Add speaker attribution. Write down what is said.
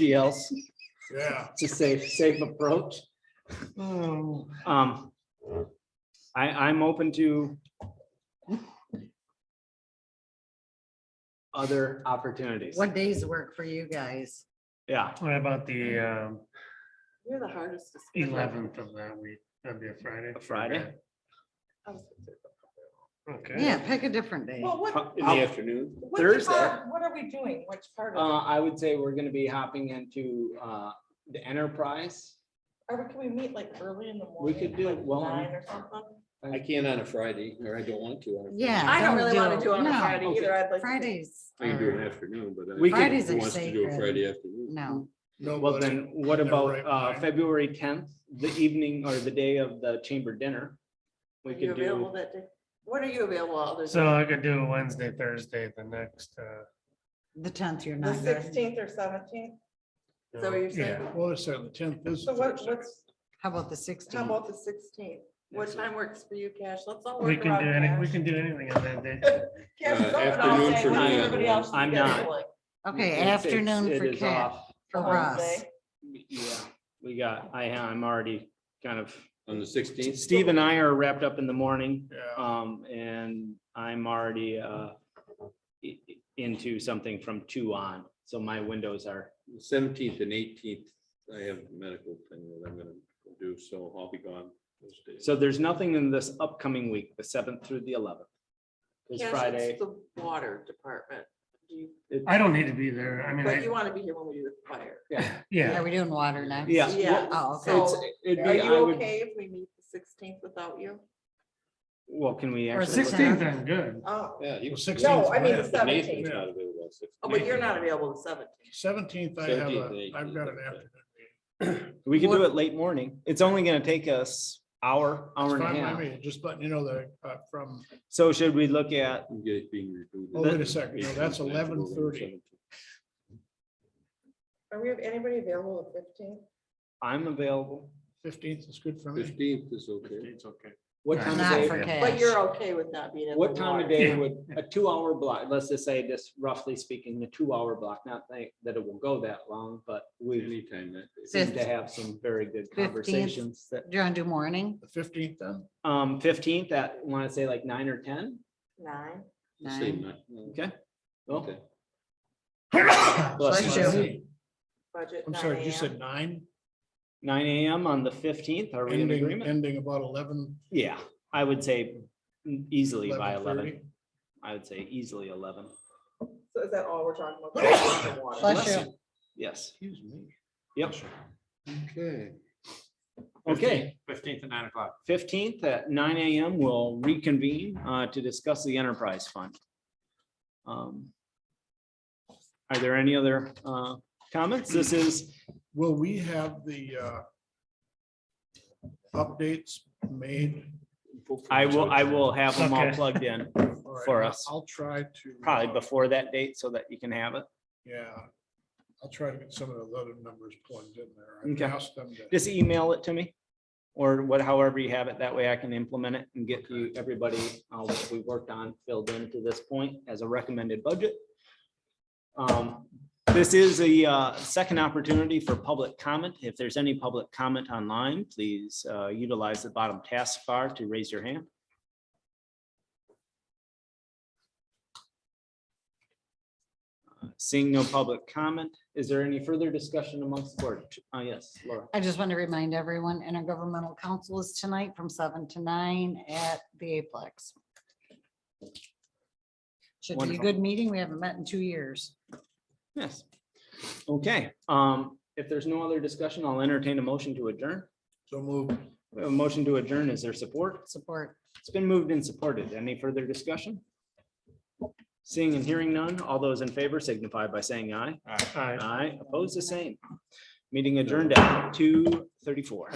Speaker 1: GLs.
Speaker 2: Yeah.
Speaker 1: It's a safe, safe approach. Um, I, I'm open to other opportunities.
Speaker 3: What days work for you guys?
Speaker 1: Yeah,
Speaker 4: What about the um,
Speaker 5: You're the hardest to. schedule.
Speaker 4: eleventh of that week? That'd be a Friday.
Speaker 1: A Friday?
Speaker 5: I was gonna say,
Speaker 4: Okay.
Speaker 3: Yeah, pick a different day.
Speaker 5: Well, what,
Speaker 1: Uh,
Speaker 5: what
Speaker 1: in the
Speaker 6: afternoon.
Speaker 1: Thursday.
Speaker 5: part, what are we doing? Which part of,
Speaker 1: uh, I would say we're gonna be hopping into, uh, the enterprise.
Speaker 5: it? are we, can we meet like early in the morning?
Speaker 1: We could do it well.
Speaker 5: Nine or something?
Speaker 6: I can't on a Friday, or I don't want to. on a Friday.
Speaker 3: Yeah.
Speaker 5: I don't
Speaker 3: don't
Speaker 5: really want
Speaker 3: do-
Speaker 5: to do it on a
Speaker 3: no.
Speaker 5: Friday either. I'd like. to-
Speaker 3: Fridays. um,
Speaker 6: I can do
Speaker 3: are-
Speaker 6: an afternoon, but. I-
Speaker 1: We could-
Speaker 3: Fridays
Speaker 6: Who
Speaker 3: are
Speaker 6: wants to do a
Speaker 3: sacred.
Speaker 6: Friday afternoon?
Speaker 3: No,
Speaker 1: Well, then what
Speaker 4: They're
Speaker 1: about,
Speaker 4: right
Speaker 1: uh,
Speaker 4: behind.
Speaker 1: February tenth, the evening or the day of the chamber dinner? We
Speaker 5: Are you
Speaker 1: could
Speaker 5: available
Speaker 1: do,
Speaker 5: that day? What are you available other
Speaker 4: So
Speaker 5: than
Speaker 4: I could do Wednesday, Thursday, the next. uh,
Speaker 3: the tenth, you're
Speaker 5: the
Speaker 3: not good.
Speaker 5: sixteenth or seventeenth? Is that
Speaker 4: no,
Speaker 5: what you're saying?
Speaker 4: yeah.
Speaker 2: Well, it's the tenth.
Speaker 5: So what, what's,
Speaker 3: How about the
Speaker 5: how
Speaker 3: sixteenth?
Speaker 5: about the sixteenth? What time works for you, Cash? Let's all
Speaker 4: We
Speaker 5: work
Speaker 4: can
Speaker 5: around
Speaker 4: do any, we
Speaker 5: Cash.
Speaker 4: can do anything on that day.
Speaker 5: Cash is
Speaker 6: Uh,
Speaker 5: open all
Speaker 6: afternoon
Speaker 5: day.
Speaker 6: for
Speaker 5: What
Speaker 6: me,
Speaker 5: is everybody
Speaker 6: I'm-
Speaker 5: else?
Speaker 1: I'm not.
Speaker 5: scheduling
Speaker 3: Okay,
Speaker 1: It's- it's-
Speaker 3: afternoon
Speaker 1: it
Speaker 3: for
Speaker 1: is
Speaker 3: Cat,
Speaker 1: off.
Speaker 3: for
Speaker 5: on
Speaker 3: Russ.
Speaker 5: Wednesday?
Speaker 1: Yeah, we got, I, I'm already kind of,
Speaker 6: On the sixteenth?
Speaker 1: Steve and I are wrapped up in the morning,
Speaker 4: Yeah.
Speaker 1: um, and I'm already, uh, i- i- into something from two on, so my windows are,
Speaker 6: Seventeenth and eighteenth, I have a medical thing that I'm gonna do, so I'll be gone those days.
Speaker 1: so there's nothing in this upcoming week, the seventh through the eleventh. It's
Speaker 5: Cash,
Speaker 1: Friday.
Speaker 5: it's The water department. Do you,
Speaker 4: I don't need to be there. I mean,
Speaker 5: but
Speaker 4: I-
Speaker 5: you want to be here when we do the fire.
Speaker 1: Yeah,
Speaker 3: Are
Speaker 4: yeah,
Speaker 3: we doing water next?
Speaker 1: yeah.
Speaker 5: Yeah.
Speaker 1: well,
Speaker 3: Oh, okay.
Speaker 5: So-
Speaker 1: It's, it'd
Speaker 5: Are
Speaker 1: be, I
Speaker 5: you
Speaker 1: would,
Speaker 5: okay if we meet the sixteenth without you?
Speaker 1: well, can we
Speaker 3: Or
Speaker 1: actually? look-
Speaker 4: sixteenth, I'm good.
Speaker 5: Oh,
Speaker 6: Yeah. you-
Speaker 2: Well, 16th
Speaker 5: no, I mean the
Speaker 2: Nathan's
Speaker 5: seventeenth.
Speaker 6: Nathan's not available on 16th.
Speaker 5: Oh, but you're not available the seventeenth.
Speaker 2: Seventeenth, I have
Speaker 6: 17th,
Speaker 2: a,
Speaker 6: they-
Speaker 2: I've got an afternoon.
Speaker 1: We could do
Speaker 3: What-
Speaker 1: it late morning. It's only gonna take us hour, hour
Speaker 2: It's
Speaker 1: and a
Speaker 2: fine by
Speaker 1: half.
Speaker 2: me, Just letting you know that, uh, from,
Speaker 1: So should we look at,
Speaker 6: You get it being rebooted.
Speaker 2: Oh, wait a second, no, that's
Speaker 6: 18th, 19th,
Speaker 2: 11:30.
Speaker 6: 17th.
Speaker 5: Are we, anybody available the fifteenth?
Speaker 1: I'm available.
Speaker 2: fifteenth is good for me.
Speaker 6: Fifteenth is okay.
Speaker 4: okay.
Speaker 1: What
Speaker 4: Right.
Speaker 1: time of
Speaker 3: Not
Speaker 1: day?
Speaker 3: for
Speaker 4: But
Speaker 3: Cash.
Speaker 5: But you're okay with not being. at
Speaker 1: What
Speaker 5: the
Speaker 1: time of
Speaker 5: water.
Speaker 1: day
Speaker 4: Yeah.
Speaker 1: would, a two-hour block, let's just say this roughly speaking, the two-hour block, not think that it will go that long, but we
Speaker 6: Anytime that. day.
Speaker 1: seem to have some very good conversations that,
Speaker 3: Do you want to do morning?
Speaker 2: The fifteenth then?
Speaker 1: um, fifteenth, that, want to say like nine or ten?
Speaker 5: Nine.
Speaker 6: Say
Speaker 3: Nine.
Speaker 6: nine.
Speaker 1: Okay. Well,
Speaker 6: Okay.
Speaker 1: bless
Speaker 3: Bless
Speaker 1: you.
Speaker 3: you.
Speaker 5: Budget.
Speaker 2: I'm
Speaker 5: 9
Speaker 2: sorry, you said
Speaker 5: a.m.
Speaker 2: nine,
Speaker 1: Nine AM on the fifteenth, are we in
Speaker 2: ending,
Speaker 1: agreement?
Speaker 2: ending about eleven.
Speaker 1: Yeah, I would say easily by eleven.
Speaker 2: 11:30.
Speaker 1: I would say easily eleven.
Speaker 5: So is that all we're talking about?
Speaker 3: Bless you.
Speaker 1: Yes,
Speaker 2: Excuse me.
Speaker 1: yep.
Speaker 6: Okay.
Speaker 1: Okay,
Speaker 4: Fifteenth at nine o'clock.
Speaker 1: fifteenth at nine AM, we'll reconvene uh, to discuss the enterprise fund. Um, Are there any other uh, comments? This is,
Speaker 2: Will we have the uh, updates made?
Speaker 1: I will, I will have them all
Speaker 4: Okay.
Speaker 1: plugged in
Speaker 2: All right,
Speaker 1: For us.
Speaker 2: I'll try to.
Speaker 1: probably
Speaker 2: uh,
Speaker 1: before that date so that you can have it.
Speaker 2: Yeah, I'll try to get some of those other numbers plugged in there.
Speaker 1: Okay.
Speaker 2: I asked them to,
Speaker 1: Just email it to me or what, however you have it. That way I can implement it and get you, everybody, uh, what we worked on filled in to this point as a recommended budget. Um, This is a uh, second opportunity for public comment. If there's any public comment online, please uh, utilize the bottom taskbar to raise your hand. Uh, Seeing no public comment, is there any further discussion amongst the board? Uh, Yes, Laura.
Speaker 3: I just want to remind everyone, intergovernmental council is tonight from seven to nine at the Aplex. Should be a
Speaker 1: Wonderful.
Speaker 3: good meeting. We haven't met in two years.
Speaker 1: Yes. Okay, um, if there's no other discussion, I'll entertain a motion to adjourn.
Speaker 2: so move.
Speaker 1: We have A motion to adjourn, is there support?
Speaker 3: Support.
Speaker 1: It's been moved and supported. Any further discussion? Seeing and hearing none, all those in favor signify by saying aye. Aye, opposed the same. Meeting adjourned at two thirty-four.